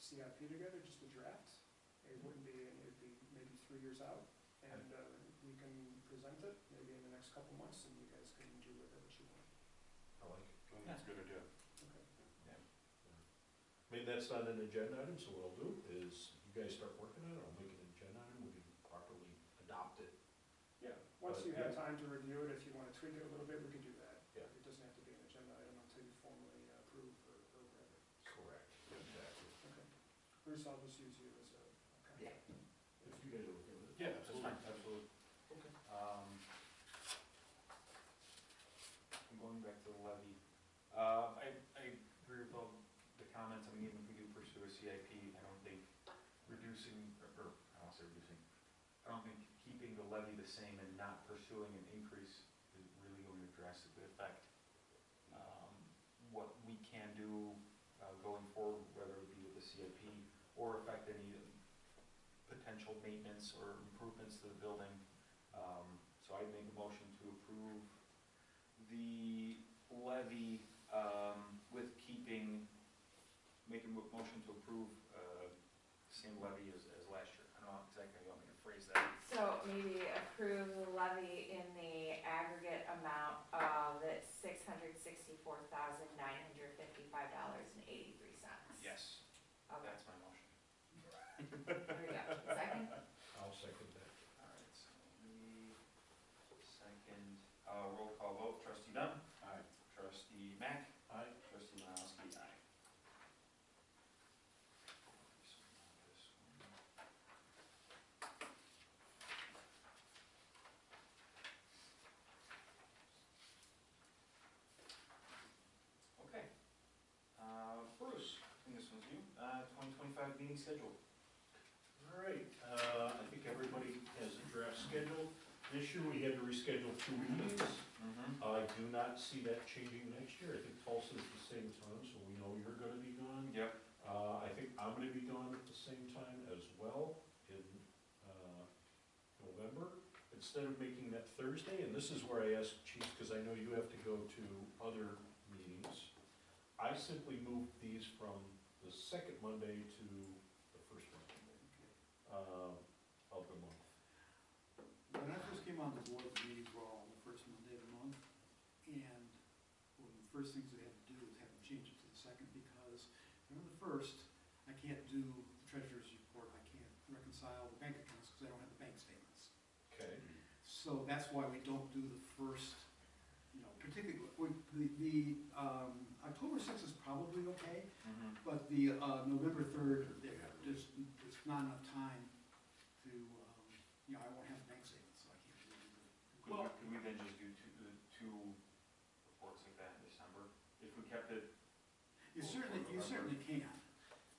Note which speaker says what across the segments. Speaker 1: CIP together, just a draft. It wouldn't be, it'd be maybe three years out, and uh, we can present it maybe in the next couple months, and you guys can do with it what you want.
Speaker 2: I like it.
Speaker 3: I think That's a good idea.
Speaker 1: Okay.
Speaker 2: Maybe that's not an agenda item, so what I'll do is, you guys start working on it, I'll make it an agenda item, we can properly adopt it.
Speaker 1: Yeah, once
Speaker 2: But,
Speaker 1: you
Speaker 2: yeah.
Speaker 1: have time to review it, if you want to tweak it a little bit, we can do that.
Speaker 2: Yeah.
Speaker 1: It doesn't have to be an agenda item until you formally uh, approve or or whatever.
Speaker 2: Correct. Exactly.
Speaker 1: Okay. Bruce, I'll just use you as a. okay.
Speaker 2: Yeah. If you guys are okay with it.
Speaker 3: Yeah, absolutely, absolutely.
Speaker 2: Okay.
Speaker 3: Um, I'm going back to the levy. Uh, I, I agree with all the comments, I mean, even if we do pursue a CIP, I don't think reducing, or, or, I don't say reducing, I don't think keeping the levy the same and not pursuing an increase is really going to drastically affect, um, what we can do, uh, going forward, whether it be with the CIP or affect any potential maintenance or improvements to the building. Um, So I'd make a motion to approve the levy um, with keeping, make a mo- motion to approve uh, same levy as, as last year. I don't know exactly how you want me to phrase that.
Speaker 4: So maybe approve the levy in the aggregate amount of six hundred sixty-four thousand nine hundred fifty-five dollars and eighty-three cents.
Speaker 3: Yes,
Speaker 4: Okay,
Speaker 3: that's my motion.
Speaker 4: there we go. Second?
Speaker 2: I'll second that.
Speaker 3: All right, so the second, uh, roll call vote, trustee Dunn. Aye. Trustee Mack.
Speaker 2: Aye.
Speaker 3: Trustee Malowski, aye. Okay. Uh, Bruce, I think this one's you, uh, twenty twenty-five meeting schedule.
Speaker 2: All right, uh, I think everybody has a draft schedule. This year, we had to reschedule two meetings.
Speaker 3: Mm-hmm.
Speaker 2: I do not see that changing next year. I think Tulsa's the same time, so we know you're gonna be gone.
Speaker 3: Yep,
Speaker 2: Uh, I think I'm gonna be gone at the same time as well in, uh, November. Instead of making that Thursday, and this is where I ask Chief, because I know you have to go to other meetings. I simply moved these from the second Monday to the first Monday, uh, of the month.
Speaker 5: When I first came on the board, the meetings were all the first Monday of the month, and one of the first things we had to do was have to change it to the second, because if I'm on the first, I can't do the treasurer's report, I can't reconcile the bank accounts, because I don't have the bank statements.
Speaker 2: Okay,
Speaker 5: So that's why we don't do the first, you know, particularly, we- the, the, um, October sixth is probably okay,
Speaker 3: mm-hmm,
Speaker 5: but the, uh, November third, there, there's, there's not enough time to, um, you know, I won't have bank statements, so I can't really do
Speaker 3: Could we,
Speaker 5: Well-
Speaker 3: could we then just do two, the two reports like that in December? If we kept it,
Speaker 5: it. You certainly, you certainly can,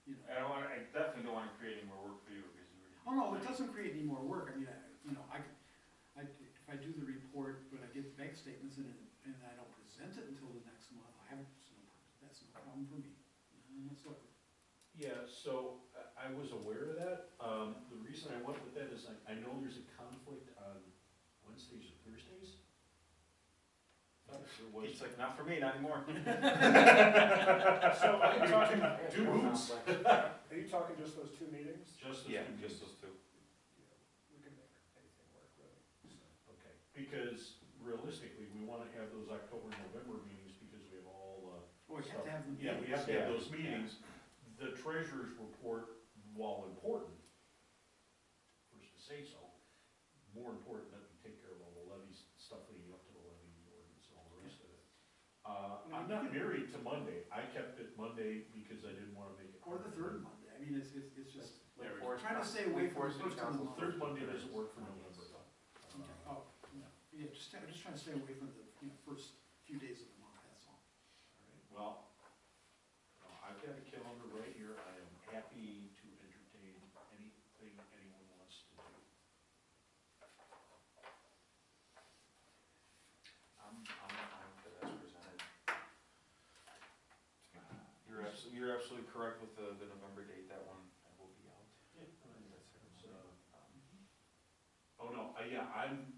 Speaker 5: you know.
Speaker 3: I don't want, I definitely don't want to create any more work for you because you were.
Speaker 5: Oh, no, it doesn't create any more work, I mean, I, you know, I, could- I, if I do the report, but I get the bank statements and, it- and I don't present it until the next month, I haven't, so that's no problem for me, none whatsoever.
Speaker 2: Yeah, so I I was aware of that. Um, The reason I went with that is I I know there's a conflict on Wednesdays or Thursdays. There was-
Speaker 3: It's like, not for me, not anymore.
Speaker 1: So are you talking,
Speaker 2: Two hoops.
Speaker 1: are you talking just those two meetings?
Speaker 2: Just as
Speaker 3: Yeah,
Speaker 2: we
Speaker 3: just
Speaker 2: just,
Speaker 3: those two.
Speaker 1: Yeah, We can make anything work, really. So,
Speaker 2: okay. Because realistically, we want to have those October, November meetings because we have all,
Speaker 5: Oh, we have to have them.
Speaker 2: uh, yeah, we have to have
Speaker 3: Yeah.
Speaker 2: those meetings. The treasurer's report, while important, first to say so, more important that we take care of all the levies, stuff leading up to the levy ordinance and all the rest of it. Uh, I'm not married to Monday. I kept it Monday because I didn't want to make it.
Speaker 5: Or the third Monday, I mean, it's, it's, it's just,
Speaker 3: Like
Speaker 2: There
Speaker 3: Forest
Speaker 5: Trying to
Speaker 3: Park-
Speaker 5: stay away
Speaker 3: like
Speaker 5: from
Speaker 3: Forest
Speaker 5: the first
Speaker 3: City
Speaker 5: one.
Speaker 3: Council
Speaker 2: Third
Speaker 3: Thursday.
Speaker 2: Monday doesn't work for November.
Speaker 5: okay,
Speaker 2: Uh,
Speaker 5: oh, yeah, yeah, just, I'm just trying to stay away from the, you know, first few days of the month, that's all.
Speaker 2: Well, uh, I've got a calendar right here, I am happy to entertain anything anyone wants to do.
Speaker 3: I'm, I'm, I'm for that as presented. You're absolutely, you're absolutely correct with the, the November date, that one, I will be out. um,
Speaker 2: So, Oh, no, uh, yeah, I'm,